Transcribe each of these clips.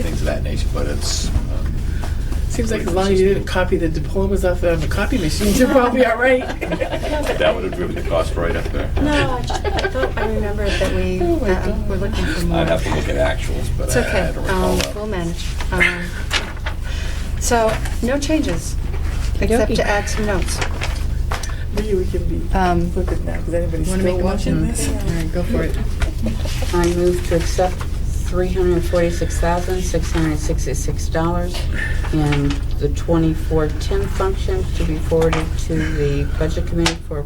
that nature, but it's, um, Seems like as long as you didn't copy the diplomas off of the copy machines, you're probably all right. that would have driven the cost right up there. No, I just, I thought I remembered that we, Oh my uh, God. were looking for more. I'd have to look at actuals, but It's I okay, I don't recall um, that. we'll manage. Um, So, no changes, except to add some notes. Maybe we can be Um, flippant now, because anybody's Want to make still a motion? watching All this. right, go for it. I move to accept $346,666 and the 2410 function to be forwarded to the Budget Committee for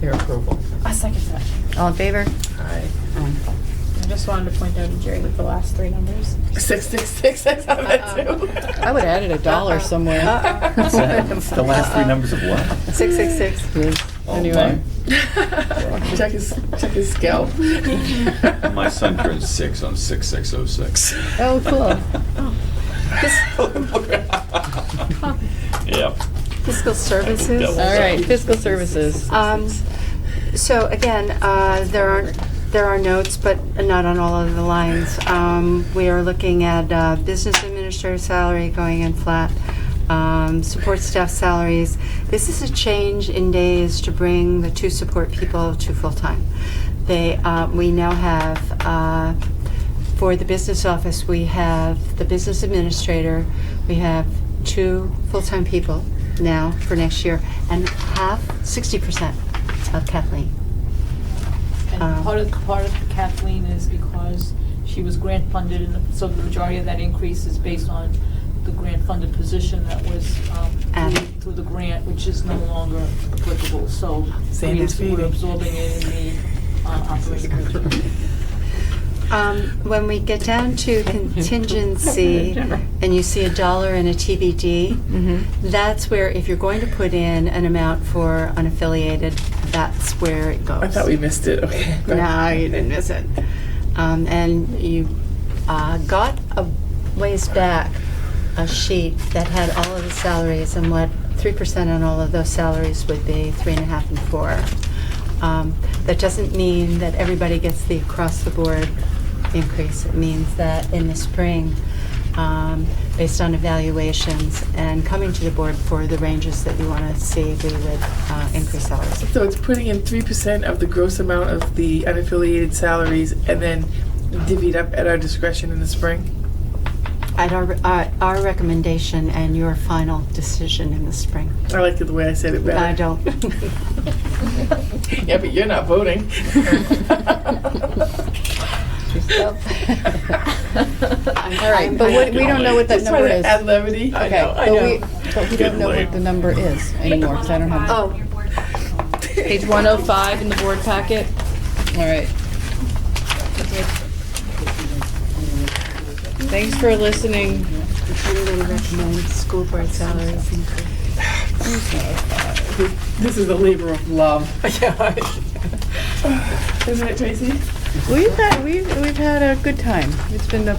their approval. I second that. All in favor? Aye. Um, I just wanted to point out to Jerry with the last three numbers. Six, six, six, I saw that too. Uh-uh. Uh-uh. I would have added a dollar somewhere. What's Um, that? uh, The last three numbers of what? 666. Oh, Anyway. Check his, check his scalp. mine. My son turned six on six six oh six. Oh, cool. Yep. Fiscal services. Devil. All right, fiscal services. Um, So again, uh, there are, there are notes, but not on all of the lines. Um, We are looking at uh, business administrator salary going in flat, um, support staff salaries. This is a change in days to bring the two support people to full-time. They, uh, we now have uh, for the business office, we have the business administrator, we have two full-time people now for next year, and half, 60% of Kathleen. And Um, part of, part of Kathleen is because she was grant funded, and so the majority of that increase is based on the grant funded position that was, um, Added. through- through the grant, which is no longer applicable, so Sand we're is we're feeding. absorbing it in the, uh, operating budget. Um, When we get down to contingency, and you see a dollar and a TBD, Mhm. Mm-hmm. that's where, if you're going to put in an amount for unaffiliated, that's where it goes. I thought we missed it, okay. No, you didn't miss it. Um, and you uh, got a ways back a sheet that had all of the salaries and what 3% on all of those salaries would be, three and a half and four. Um, that doesn't mean that everybody gets the across the board increase. It means that in the spring, um, based on evaluations and coming to the board for the ranges that you want to see, we would uh, increase salaries. So it's putting in three percent of the gross amount of the unaffiliated salaries and then divvied up at our discretion in the spring? At our, uh, our recommendation and your final decision in the spring. I liked it the way I said it better. I don't. Yeah, but you're not voting. All right, but what- we don't know what that Just trying number to is. add levity. I Okay, know, I but know. we- But we don't know what the number is anymore, because I don't have. Oh. Page 105 in the board packet. All right. Thanks for listening. I'm going to recommend school board salaries increase. This is a labor of love. Isn't it, Tracy? We've had, we've, we've had a good time. It's been a,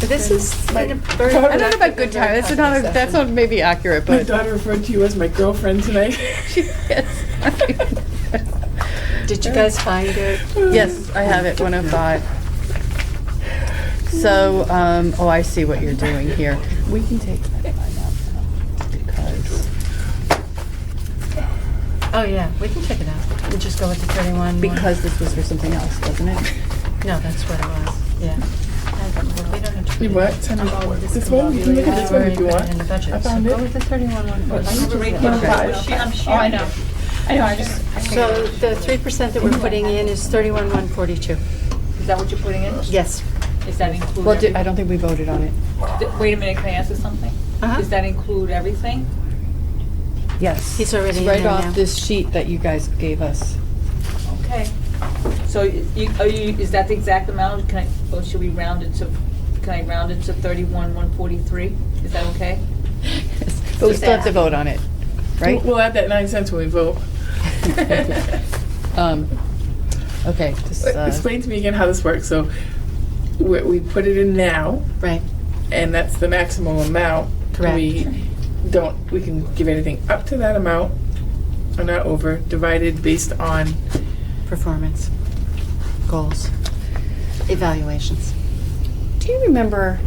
This is been a very. I don't know about good time, that's not, a- that's not maybe accurate, My but. daughter referred to you as my girlfriend tonight. Did you guys find it? Yes, I have it, 105. So, um, oh, I see what you're doing here. We can take that line out now, because. Oh, yeah, we can check it out. We'll just go with the 31. one. Because this was for something else, wasn't it? No, that's what it was, yeah. We don't have to. You what? Tell me. This one, you can look at this one if you want. In the budget. I So found go it. with the 31 one. first. Oh, I'm Oh, sure, I know. I know, I just. So the 3% that we're putting in is 31,142. Is that what you're putting in? Yes. Is that include? Well, did- I don't think we voted on it. every- Wait a minute, can I ask you something? Uh-huh. Does that include everything? Yes. He's already It's in Right there now. off this sheet that you guys gave us. Okay. So you, are you, is that the exact amount? Can I, or should we round it to, can I round it to thirty-one, one forty-three? Is that okay? But we still have to vote on it, right? We'll add that nine cents when we vote. Um, okay, this, uh, Explain to me again how this works. So we, we put it in now, Right, and that's the maximum amount. Correct. We don't, we can give anything up to that amount, or not over, divided based on, performance, goals, evaluations. do you remember